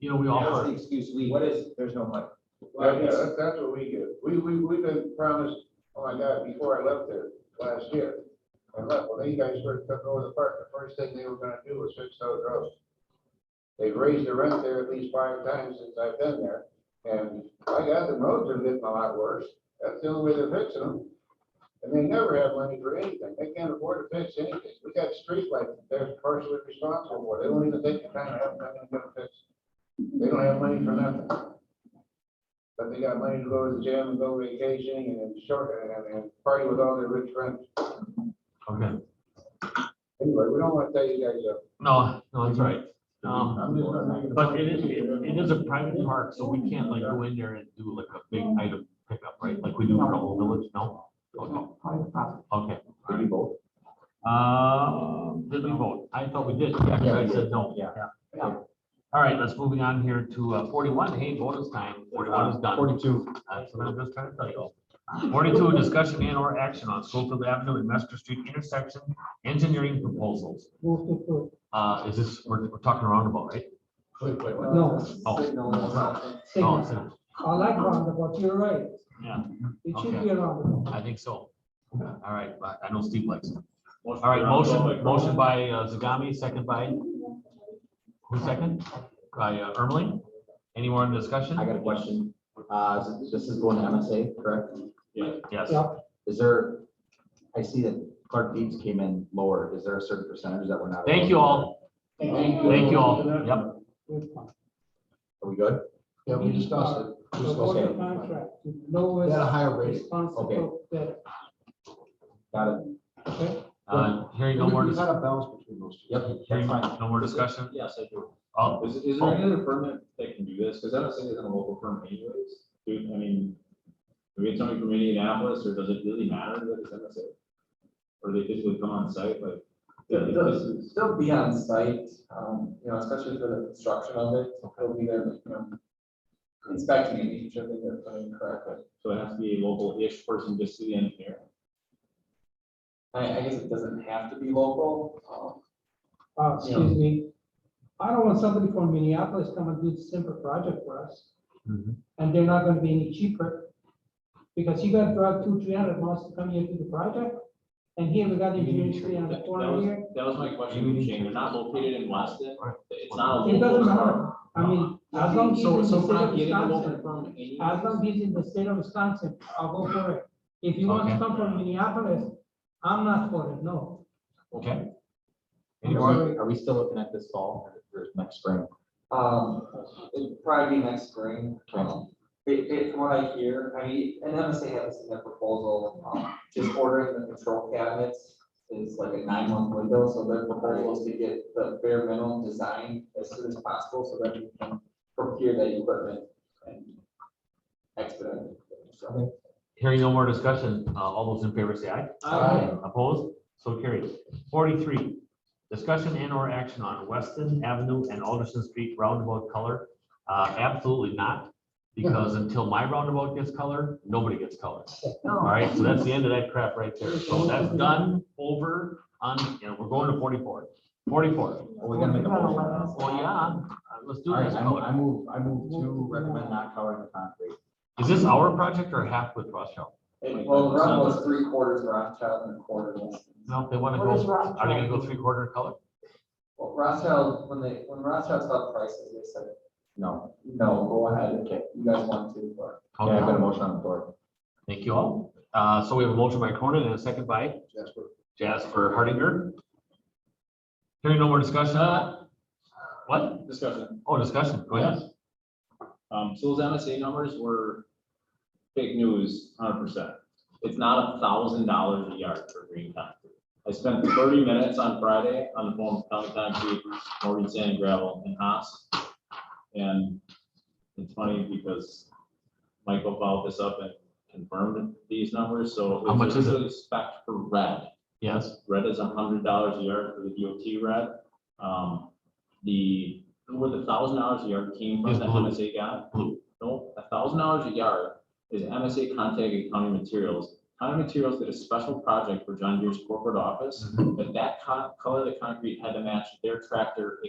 you know, we That's the offer, excuse we, What is- there's no money. Well, yeah, that's, that's what we get. We, we, we've been promised, oh my God, before I left there last year. I left, well, you guys were took over the park. The first thing they were gonna do was fix those roads. They've raised the rent there at least five times since I've been there. And I got the roads are getting a lot worse. That's the only way they're fixing them. And they never have money for anything. They can't afford to fix anything. We got streetlights that they're partially responsible for. They don't even take the time to have nothing to fix. They don't have money for nothing. But they got money to go to the gym and go vacationing and short and, and party with all their rich friends. okay, Anyway, we don't want to tell you guys uh, up. no, no, that's right. Um, I'm just not making a- but it is, it it is a private park, so we can't like go in there and do like a big item pickup, right? Like we do for the whole village, no? Okay. Okay. Did we vote? Uh, did we vote? I thought we did. Yeah, 'cause I said no. Yeah. Yeah. All right, let's moving on here to uh, forty-one. Hey, bonus time. Forty-one is done. Forty-two. That's what I'm just trying to tell you. Forty-two, discussion and or action on Schofield Avenue and Mester Street intersection engineering proposals. Uh, is this, we're, we're talking roundabout, right? Wait, wait, wait. No, Oh. Signal or something. No, signal. Oh, it's- I like roundabout, you're right. Yeah, It should Okay. be a roundabout. I think so. All right, but I know Steve likes it. All right, motion, motion by uh, Zagami, second by, who second? By uh, Ermeling? Any more in discussion? I got a question. Uh, this- this is going to MSA, correct? Yes. Yep. Is there, I see that Clark Deeds came in lower. Is there a certain percentage that we're not? Thank you all. Thank you all. Yep. Good one. Are we good? Yeah, we discussed it. We So discussed what a it. contract, the We had a lowest higher rate. responsible bidder, Got it. okay? Uh, hearing no more, We've dis- had a balance between those two. Yep. hearing that's fine. no more discussion? Oh. Yes, I do. All, Is, is there any other firm that, that can do this? Because I don't think it's a local firm anyways. Dude, I mean, do we get somebody from Indianapolis or does it really matter that it's MSA? Or they physically come on site, like? Yeah, it does. They'll be on site, um, you know, especially for the construction of it, so they'll be there, you know, inspecting and making sure that they're putting it correctly. So it has to be a local-ish person just to the engineer. I, I guess it doesn't have to be local, um, Uh, excuse me. I don't want somebody from Minneapolis come and do the simple project for us, Mhm. and they're not gonna be any cheaper. Because you gotta drive two, three hundred miles to come here to the project, and here we got engineering three That hundred, that four hundred was, here. that was my question, Shane. They're not located in Weston. It's not a It local doesn't matter. firm. I mean, as long as he's So, in so the if state we're of not getting a local Wisconsin, firm anyways. as long as he's in the state of Wisconsin, I'll go for it. If you want to Okay. come from Minneapolis, I'm not for it, no. okay. Any more? Are we still looking at this fall or next spring? um, it'd probably be next spring. Um, It, it, from what I hear, I mean, and MSA has in their proposal, um, just ordering the control cabinets is like a nine month window, so their proposal is to get the bare minimum design as soon as possible, so that we can procure that equipment and expedite it. So. Hearing no more discussion, uh, all those in favor say aye. Aye. Opposed? So carried. Forty-three, discussion and or action on Weston Avenue and Alderson Street roundabout color. Uh, absolutely not, because until my roundabout gets color, nobody gets color. All right, so that's the end of that crap right there. So that's done, over, on, you know, we're going to forty-four. Forty-four. Are we gonna make a motion? on this? Well, yeah, uh, let's do All right, this I mo- color. I move, I move to recommend not coloring the concrete. Is this our project or half with Rothschild? It- Well, the run was three quarters Rothschild and a quarter Weston. No, they wanna What is go, are they gonna Rothschild? go three-quarter color? Well, Rothschild, when they, when Rothschild saw the prices, they said, No. no, go ahead, you guys want to, but. Okay, I've got a Okay, motion on the floor. thank you all. Uh, so we have a motion by Cronin and a second by Jasper. Jasper Hardinger. Hearing no more discussion. uh, What? Discussion. Oh, discussion. Go ahead. Um, so those MSA numbers were fake news, hundred percent. It's not a thousand dollars a yard for green concrete. I spent thirty minutes on Friday on the phone with County Concrete, Morgan Sand and Gravel and Haas. And it's funny because Michael followed this up and confirmed these numbers, so. How much is it? originally Spec for red. Yes. Red is hundred dollars a yard for the DOT red. Um, the, where the thousand dollars a yard came Is from, that blue. MSA got? Blue. No, a thousand dollars a yard is MSA contacted County Materials. County Materials did a special Mm-hmm. project for John Deere's corporate office, but that co- color of the concrete had to match their tractor